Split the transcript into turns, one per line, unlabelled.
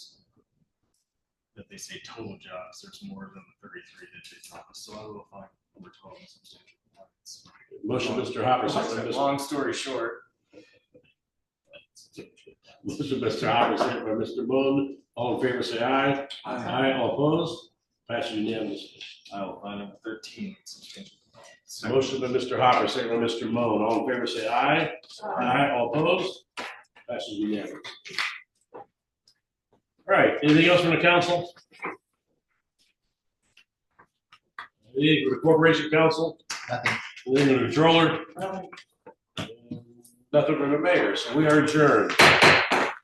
they say total jobs, there's more than the thirty-three that they promised, so I will find number twelve is substantial. compliance.
Motion, Mr. Hopper, second, by Mr.
Long story short.
Motion, Mr. Hopper, second by Mr. Moon. All in favor, say aye. Aye, all opposed. Passes unanimously.
I will find number thirteen substantial compliance.
Motion by Mr. Hopper, second by Mr. Moon. All in favor, say aye. Aye, all opposed. Passes unanimously. All right, anything else from the council? Anything from the corporation council? Nothing. Anything from the controller? Nothing from the mayor, so we are adjourned.